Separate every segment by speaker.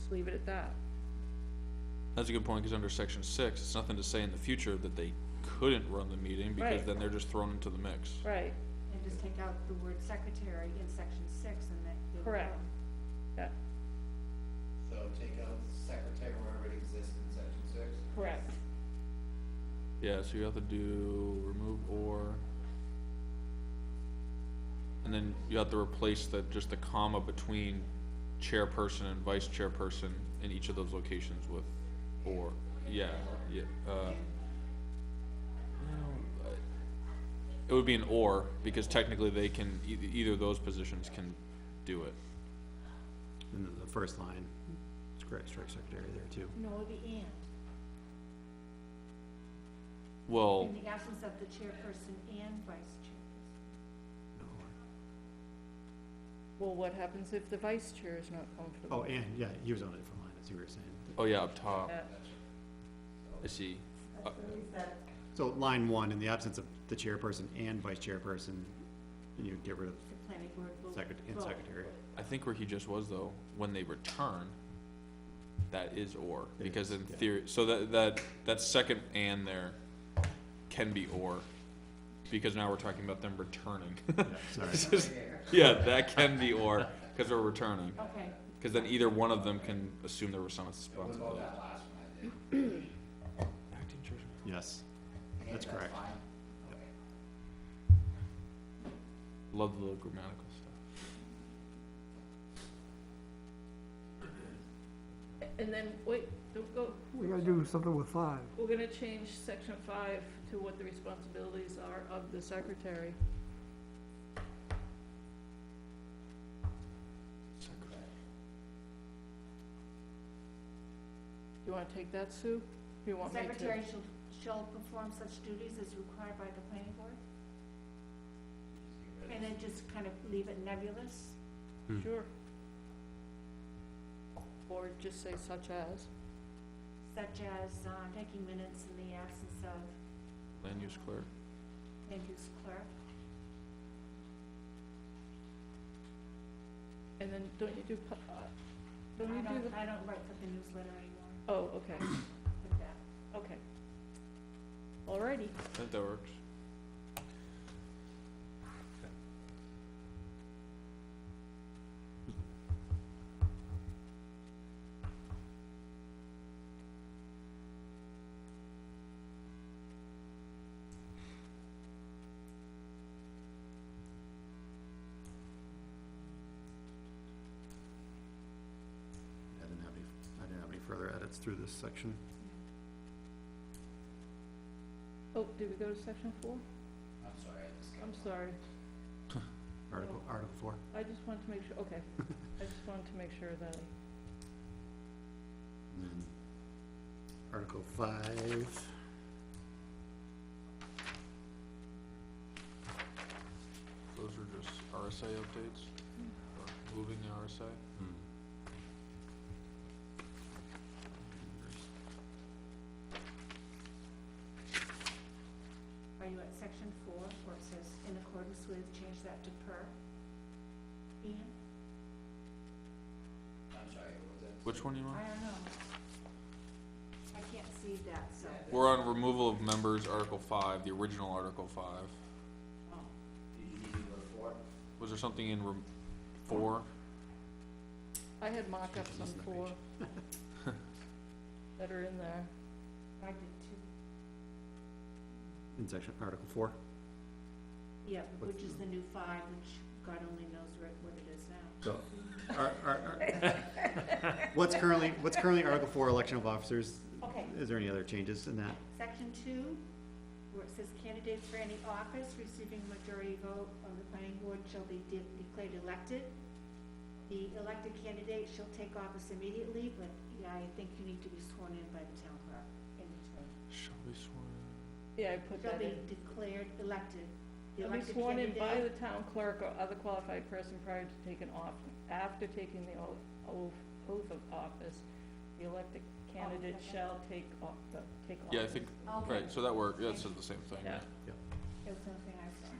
Speaker 1: just leave it at that.
Speaker 2: That's a good point, because under section six, it's nothing to say in the future that they couldn't run the meeting, because
Speaker 1: Right.
Speaker 2: then they're just thrown into the mix.
Speaker 1: Right,
Speaker 3: And just take out the word secretary in section six and that. you'll go.
Speaker 1: Correct. yeah,
Speaker 4: So take out secretary wherever it exists in section six.
Speaker 1: correct.
Speaker 2: Yeah, so you have to do remove or. And then you have to replace the, just the comma between chairperson and vice chairperson in each of those locations with or, yeah, yeah, uh. no, I- It would be an or, because technically they can, eith- either of those positions can do it.
Speaker 5: And then the first line, it's correct, strike secretary there too.
Speaker 3: No, it'd be and.
Speaker 5: Oh.
Speaker 2: Well.
Speaker 3: In the absence of the chairperson and vice chairperson.
Speaker 5: No.
Speaker 1: Well, what happens if the vice chair is not comfortable?
Speaker 5: Oh, and, yeah, he was on a different line, as you were saying.
Speaker 2: Oh yeah, up top.
Speaker 1: That-
Speaker 2: I see. Uh,
Speaker 5: So line one, in the absence of the chairperson and vice chairperson, you get rid of
Speaker 3: The planning board will.
Speaker 5: secret, and
Speaker 3: vote.
Speaker 5: secretary.
Speaker 2: I think where he just was though, when they return, that is or
Speaker 5: It
Speaker 2: because
Speaker 5: is,
Speaker 2: in
Speaker 5: yeah.
Speaker 2: theory, so that that that second and there can be or because now we're talking about them returning.
Speaker 5: Yeah, Sorry,
Speaker 2: yeah, that can be or because they're returning.
Speaker 3: Okay,
Speaker 2: Because then either one of them can assume their
Speaker 4: What about
Speaker 2: responsibility.
Speaker 4: that last one I did?
Speaker 5: yes,
Speaker 4: I think
Speaker 5: That's correct.
Speaker 4: fine. Okay.
Speaker 2: Love the little grammatical stuff.
Speaker 1: And then, wait, don't go,
Speaker 6: We gotta do something with five.
Speaker 1: we're gonna change section five to what the responsibilities are of the secretary. You wanna take that, Sue? You
Speaker 3: the
Speaker 1: want me to?
Speaker 3: secretary shall, shall perform such duties as required by the planning board? And then just kind of leave it nebulous?
Speaker 1: Sure. Or just say such as.
Speaker 3: such as uh, taking minutes in the absence of
Speaker 2: Land use clerk.
Speaker 3: land use clerk.
Speaker 1: And then, don't you do, pu- uh,
Speaker 3: I
Speaker 1: don't you do
Speaker 3: don't,
Speaker 1: the,
Speaker 3: I don't write for the newsletter anymore
Speaker 1: oh, okay,
Speaker 3: with that.
Speaker 1: okay. Alrighty,
Speaker 2: I think that works.
Speaker 5: I didn't have any, I didn't have any further edits through this section.
Speaker 1: oh, did we go to section four?
Speaker 4: I'm sorry, I just got.
Speaker 1: I'm sorry,
Speaker 5: Article, article four,
Speaker 1: I just wanted to make sure, okay, I just wanted to make sure that,
Speaker 5: and then article five.
Speaker 2: Those are just RSA updates, or moving the RSA.
Speaker 3: Are you at section four, where it says in accordance with, change that to per? Ian,
Speaker 4: I'm sorry, what was that?
Speaker 2: Which one do you want?
Speaker 3: I don't know. I can't see that, so,
Speaker 4: Yeah,
Speaker 2: We're on removal of members, Article five, the original Article five.
Speaker 3: oh,
Speaker 4: Did you need to go to four?
Speaker 2: Was there something in rem- four?
Speaker 1: I had mock-ups on
Speaker 5: Missing a
Speaker 1: four.
Speaker 5: page.
Speaker 1: That are in there,
Speaker 3: I did too.
Speaker 5: In section, article four,
Speaker 3: Yeah,
Speaker 5: What's
Speaker 3: which is the new five, which God only knows where- what it is now.
Speaker 5: so, ar- ar- ar- what's currently, what's currently article four, election of officers,
Speaker 3: Okay,
Speaker 5: is there any other changes in that?
Speaker 3: Section two, where it says candidates for any office receiving majority vote of the planning board shall be de- declared elected. The elected candidate shall take office immediately, but yeah, I think you need to be sworn in by the town clerk. in between.
Speaker 2: Shall we swear?
Speaker 1: yeah, I put that
Speaker 3: Shall
Speaker 1: in.
Speaker 3: be declared elected. The
Speaker 1: Shall be
Speaker 3: elected
Speaker 1: sworn in by the
Speaker 3: candidate-
Speaker 1: town clerk or other qualified person prior to taking off, after taking the o- oath, oath of office, the elected candidate
Speaker 3: Oh, okay.
Speaker 1: shall take off, the, take office.
Speaker 2: Yeah, I think,
Speaker 3: Okay.
Speaker 2: right, so that worked, yeah, it says the same thing, yeah.
Speaker 1: Yeah.
Speaker 3: It was something I saw.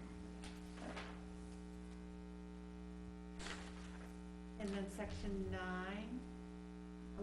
Speaker 3: And then section nine,